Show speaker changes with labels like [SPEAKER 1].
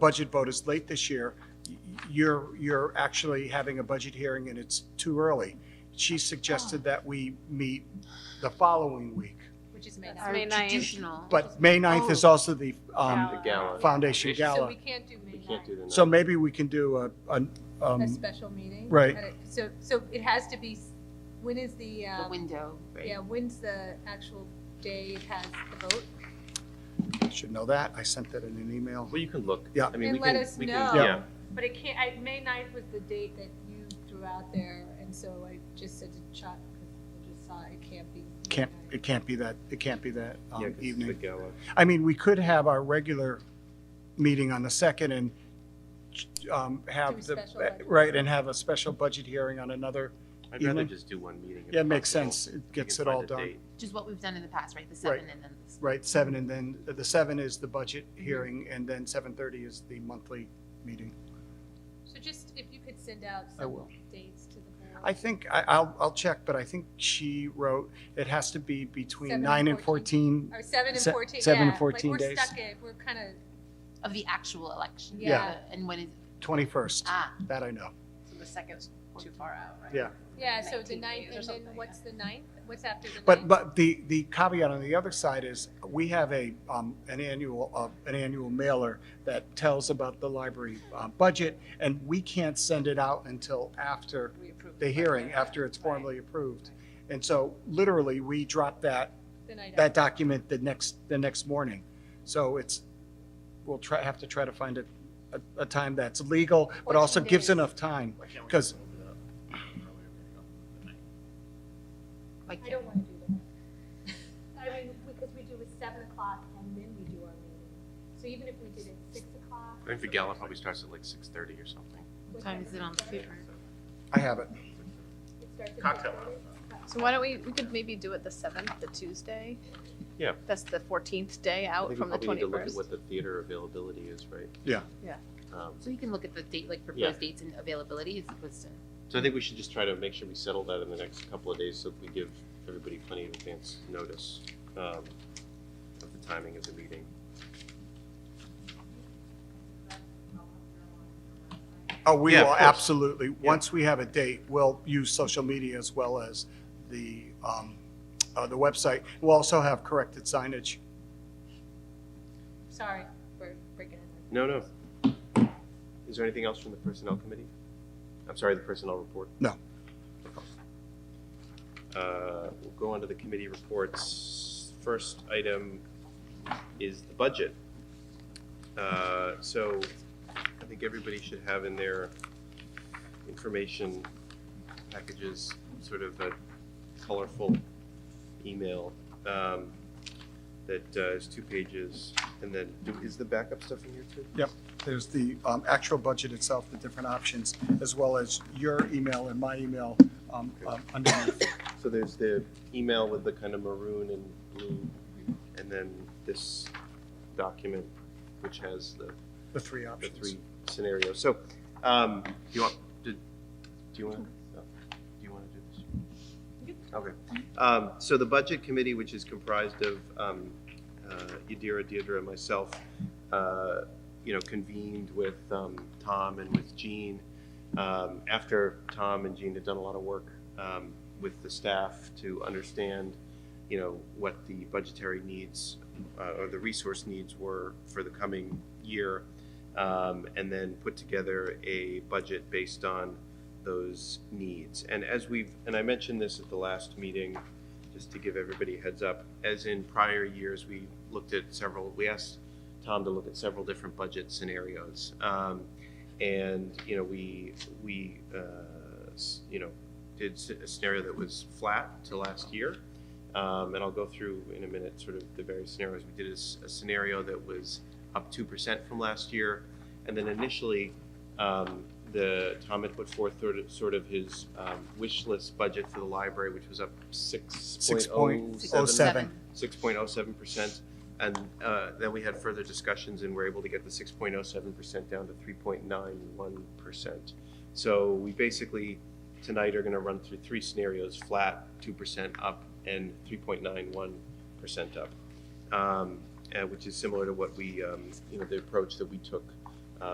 [SPEAKER 1] budget vote is late this year, y- you're, you're actually having a budget hearing and it's too early. She suggested that we meet the following week,
[SPEAKER 2] Which is May
[SPEAKER 3] That's
[SPEAKER 2] ninth.
[SPEAKER 3] May
[SPEAKER 4] May
[SPEAKER 3] ninth.
[SPEAKER 4] ninth.
[SPEAKER 3] traditional.
[SPEAKER 1] but May 9th is also the um,
[SPEAKER 2] Oh. Gala.
[SPEAKER 5] Uh,
[SPEAKER 4] The gala.
[SPEAKER 1] Foundation
[SPEAKER 2] So
[SPEAKER 1] Gala.
[SPEAKER 2] we can't do May
[SPEAKER 4] We can't do
[SPEAKER 2] ninth,
[SPEAKER 4] the.
[SPEAKER 1] So
[SPEAKER 4] night.
[SPEAKER 1] maybe we can do a, an,
[SPEAKER 2] a
[SPEAKER 1] um,
[SPEAKER 2] special meeting.
[SPEAKER 1] Right.
[SPEAKER 2] And it- So, so it has to be, s- when is the,
[SPEAKER 3] The
[SPEAKER 2] um,
[SPEAKER 3] window, right?
[SPEAKER 2] yeah, when's the actual day it has the vote?
[SPEAKER 1] should know that, I sent that in an email.
[SPEAKER 4] Well, you can look.
[SPEAKER 1] Yeah.
[SPEAKER 4] I mean,
[SPEAKER 2] And
[SPEAKER 4] we can.
[SPEAKER 2] let us
[SPEAKER 4] we can-
[SPEAKER 2] know.
[SPEAKER 4] Yeah,
[SPEAKER 2] But it can't, I, May ninth was the date that you threw out there, and so I just said to Chuck, 'cause I just saw it can't be. May
[SPEAKER 1] Can't,
[SPEAKER 2] 9th.
[SPEAKER 1] it can't be that, it can't be that um,
[SPEAKER 4] yeah, 'cause it's the
[SPEAKER 1] evening.
[SPEAKER 4] gala.
[SPEAKER 1] I mean, we could have our regular meeting on the second and um,
[SPEAKER 2] Do
[SPEAKER 1] have
[SPEAKER 2] a
[SPEAKER 1] the,
[SPEAKER 2] special budget.
[SPEAKER 1] right, and have a special budget hearing on another.
[SPEAKER 4] I'd rather
[SPEAKER 1] Evening?
[SPEAKER 4] just do one meeting. if
[SPEAKER 1] Yeah, it makes
[SPEAKER 4] possible.
[SPEAKER 1] sense. It
[SPEAKER 4] We
[SPEAKER 1] gets
[SPEAKER 4] can
[SPEAKER 1] it all
[SPEAKER 4] find a
[SPEAKER 1] done.
[SPEAKER 4] date.
[SPEAKER 3] Which is what we've done in the past, right? The seven and then the.
[SPEAKER 1] Right, seven, and then the seven is the budget
[SPEAKER 4] Mm-hmm.
[SPEAKER 1] hearing, and then seven thirty is the monthly meeting.
[SPEAKER 2] So just, if you could send out
[SPEAKER 1] I
[SPEAKER 2] some
[SPEAKER 1] will.
[SPEAKER 2] dates to the board.
[SPEAKER 1] I think, I, I'll, I'll check, but I think she wrote, it has to be between
[SPEAKER 2] Seven
[SPEAKER 1] nine
[SPEAKER 2] and
[SPEAKER 1] and fourteen.
[SPEAKER 2] Or seven and
[SPEAKER 1] Se-
[SPEAKER 2] fourteen, yeah.
[SPEAKER 1] seven and 14
[SPEAKER 2] Like, we're
[SPEAKER 1] days.
[SPEAKER 2] stuck in, we're kind of
[SPEAKER 3] Of the actual election.
[SPEAKER 2] Yeah.
[SPEAKER 3] the- And when is,
[SPEAKER 1] Twenty-first.
[SPEAKER 3] ah,
[SPEAKER 1] that I know.
[SPEAKER 5] So the second's too far out, right?
[SPEAKER 1] Yeah.
[SPEAKER 2] Yeah, so the
[SPEAKER 5] 19
[SPEAKER 2] ninth,
[SPEAKER 5] days or
[SPEAKER 2] and then
[SPEAKER 5] something,
[SPEAKER 2] what's the ninth? What's after the ninth?
[SPEAKER 1] But, but the, the caveat on the other side is, we have a, um, an annual, uh, an annual mailer that tells about the library, uh, budget, and we can't send it out until after
[SPEAKER 5] We approve
[SPEAKER 1] the
[SPEAKER 5] budget.
[SPEAKER 1] hearing, after it's formally approved. And so literally, we drop that,
[SPEAKER 2] The night
[SPEAKER 1] that
[SPEAKER 2] after.
[SPEAKER 1] document the next, the next morning. So it's, we'll try, have to try to find a, a, a time that's legal, but also
[SPEAKER 2] 14
[SPEAKER 1] gives
[SPEAKER 2] days.
[SPEAKER 1] enough time, because
[SPEAKER 3] like,
[SPEAKER 6] I don't want to do that. I mean, because we do it seven o'clock and then we do our meeting. So even if we did it six o'clock.
[SPEAKER 4] I think the gala probably starts at like six thirty or something.
[SPEAKER 3] what time is it on the paper?
[SPEAKER 1] I have it.
[SPEAKER 6] Cocktail.
[SPEAKER 5] So why don't we, we could maybe do it the seventh, the Tuesday?
[SPEAKER 4] Yeah.
[SPEAKER 5] That's the fourteenth day
[SPEAKER 4] I
[SPEAKER 5] out
[SPEAKER 4] think we
[SPEAKER 5] from the
[SPEAKER 4] probably need to look at
[SPEAKER 5] twenty-first.
[SPEAKER 4] what the theater availability is, right?
[SPEAKER 1] Yeah.
[SPEAKER 5] Yeah.
[SPEAKER 4] Um,
[SPEAKER 3] So you can look at the date, like
[SPEAKER 4] Yeah.
[SPEAKER 3] proposed dates and availability as opposed to.
[SPEAKER 4] So I think we should just try to make sure we settle that in the next couple of days so that we give everybody plenty of advance notice um, of the timing of the meeting.
[SPEAKER 1] Oh, we
[SPEAKER 4] Yeah, of
[SPEAKER 1] will
[SPEAKER 4] course.
[SPEAKER 1] absolutely,
[SPEAKER 4] Yeah.
[SPEAKER 1] once we have a date, we'll use social media as well as the, um, uh, the website. We'll also have corrected signage.
[SPEAKER 2] Sorry for breaking it.
[SPEAKER 4] No, no. Is there anything else from the personnel committee? I'm sorry, the personnel report?
[SPEAKER 1] No.
[SPEAKER 4] Uh, We'll go on to the committee reports. First item is the budget. Uh, So I think everybody should have in their information packages, sort of a colorful email um, that uh, is two pages. And then, do- is the backup stuff in here too?
[SPEAKER 1] There's the, um, actual budget itself, the different options, as well as your email and my email, um, um, underneath.
[SPEAKER 4] So there's the email with the kind of maroon and blue, and then this document, which has the,
[SPEAKER 1] the three
[SPEAKER 4] the
[SPEAKER 1] options.
[SPEAKER 4] three scenarios. So, um, do you want, did, do you want, no, do you want to do this? Okay. Um, so the budget committee, which is comprised of, um, uh, Yadira, Deidre, and myself, uh, you know, convened with, um, Tom and with Jean, um, after Tom and Jean had done a lot of work um, with the staff to understand, you know, what the budgetary needs uh, or the resource needs were for the coming year, um, and then put together a budget based on those needs. And as we've, and I mentioned this at the last meeting, just to give everybody a heads up, as in prior years, we looked at several, we asked Tom to look at several different budget scenarios. Um, and you know we we uh, s- you know did s- a scenario that was flat to last year um, and i'll go through in a minute sort of the various scenarios we did a s- a, scenario that was up 2% from last year and then initially um, the tom had put forth sort of, sort of his um, wish list budget for the library which was up 6.07
[SPEAKER 1] seven.
[SPEAKER 4] 6.07%. And uh, then we had further discussions and were able to get the 6.07% down to 3.91%. So we basically, tonight are going to run through three scenarios, flat, 2% up, and 3.91% up, um, uh, which is similar to what we, um, you know, the approach that we took